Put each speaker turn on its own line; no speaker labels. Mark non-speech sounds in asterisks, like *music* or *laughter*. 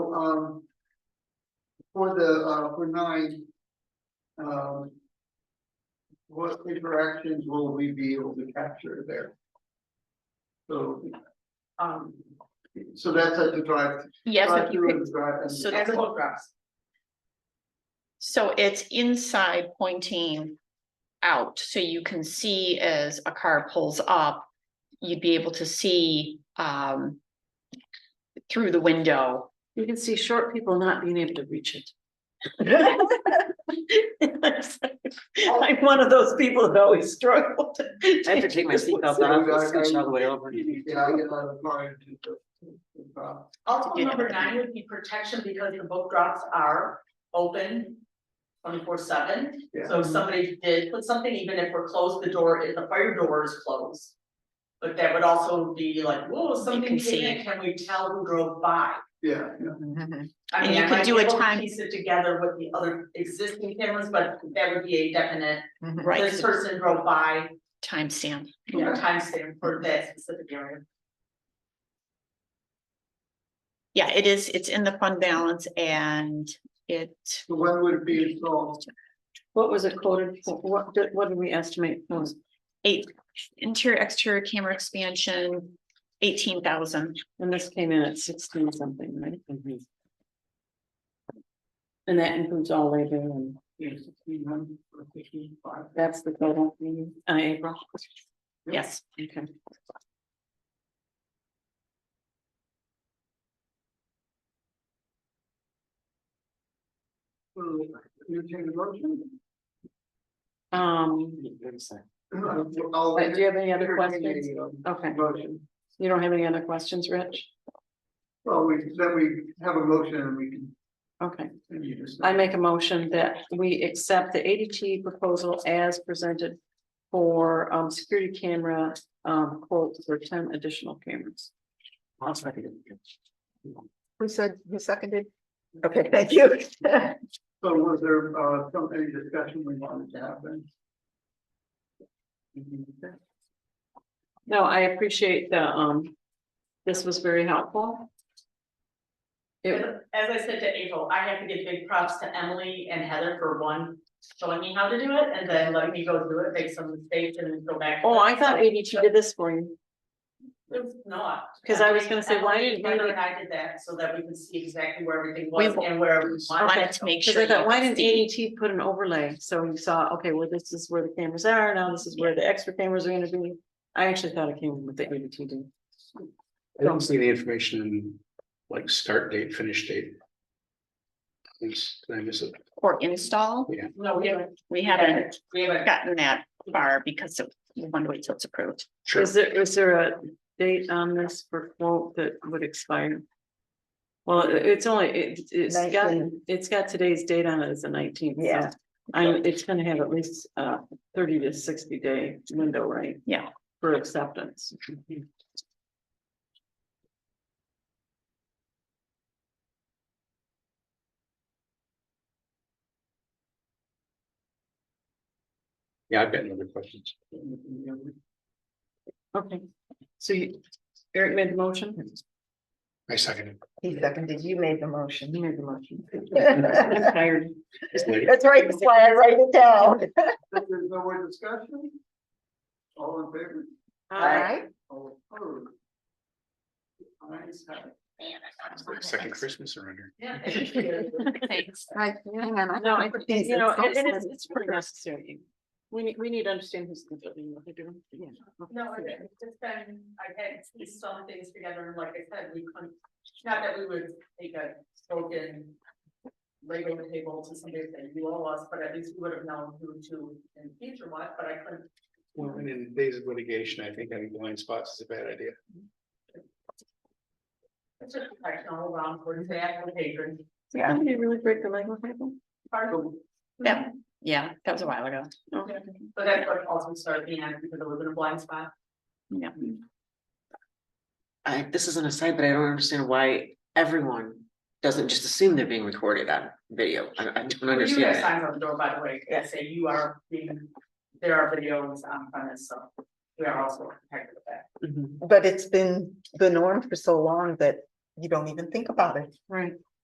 um. For the, uh, for nine. Um. What interactions will we be able to capture there? So,
um,
so that's at the drive.
Yes, if you
drive-through
could,
and drive- and-
so
and photographs.
so it's inside pointing out, so you can see as a car pulls up. You'd be able to see um. Through the window.
You can see short people not being able to reach it.
*laughs* I'm one of those people that always struggled. to-
I have to take my seatbelt off, it's scooch all the way over.
Yeah, I get out of the car and do the- the drive.
Also,
Yeah.
number nine would be protection because the book drops are open twenty-four seven.
Yeah.
So if somebody did put something, even if we're closed, the door, is the fire door is closed. But that would also be like, whoa, something
can see.
came in, can we tell who drove by?
Yeah, yeah.
Mhm.
I
And
mean,
you
I
could
might
do
be
a
able to
time-
Piece it together with the other existing cameras, but that would be a definite,
Right,
this
'cause
person drove by,
timestamp.
you know, timestamp for that specific area.
Yeah, it is, it's in the fund balance and it,
So when would it be installed?
What was it quoted, for? what, did- what did we estimate was?
eight, interior, exterior camera expansion, eighteen thousand.
And this came in at sixteen something, right?
Mm-hmm.
And that includes all labor and
Yeah, 1600 or 1500.
that's the total,
Mm-hmm.
uh, April.
Yes,
Okay.
So, Entertain a motion? *clears throat*
Um,
I'll-
but do you have any other
entertain
questions?
a, um,
Okay,
Motion.
you don't have any other questions, Rich?
Well, we, then we have a motion and we can,
Okay,
and you just.
I make a motion that we accept the ADT proposal as presented for um security camera um quote for ten additional cameras.
Who said, who seconded? Okay, thank you.
So was there, uh, some, any discussion we wanted to have then?
No, I appreciate the um, this was very helpful. It,
As as I said to April, I have to give big props to Emily and Heather for one, showing me how to do it and then letting me go through it, make some mistakes and then go back.
oh, I thought ADT did this for you.
It's not.
'Cause I was gonna say, why
Emily,
didn't we-
Heather and I did that so that we could see exactly where everything
We
was and where we
wanted
wanted
to make
Cause
sure.
I thought,
you
why didn't
see.
ADT put an overlay? So you saw, okay, well, this is where the cameras are, now this is where the extra cameras are gonna be. I actually thought it came with the ADT did.
I don't see the information like start date, finish date. Thanks, did I miss it?
Or install,
No, we haven't,
we
we
haven't
haven't, we haven't.
gotten that far because of, we want to wait till it's approved.
Sure.
Is there, is there a date on this for quote that would expire? Well, it- it's only, it, it's got,
19.
it's got today's date on it as the nineteenth.
Yeah.
I'm, it's gonna have at least a thirty to sixty day window, right?
Yeah.
For acceptance.
Yeah, I've got no other questions.
Okay, so you, Eric made
*laughs*
the motion?
I second
He seconded, you made the motion.
made the motion.
That's
I'm tired.
it.
right, that's why I write it down.
If there's no more discussion? All in favor?
All right.
All opposed? Eyes have it.
Second Christmas around
Yeah, thank you.
Thanks.
Right, hang on, I
No, I,
have to put these
you know,
in.
and and it's, it's pretty necessary. We need, we need to understand who's doing what they're doing.
No, it- it's just been, I had pieced some things together, and like I said, we couldn't, not that we would take a spoken. Label the table to somebody that you all us, but at least we would have known who to in the future what, but I couldn't.
Well, and in days of litigation, I think having blind spots is a bad idea.
It's just protection all around for the actual patron.
Yeah. Did you really break the legal table?
Part of
Yeah. Yeah, that was a while ago.
Okay.
But that's what also started me on, because I was in a blind spot.
Yeah.
I, this is an aside, but I don't understand why everyone doesn't just assume they're being recorded on video. I, I don't
But You have
understand.
signs on the door, by the way, that say you are being, there are videos on premise, so we are also protected with that.
it. Mhm.
But it's been the norm for so long that you don't even think about it.
Right.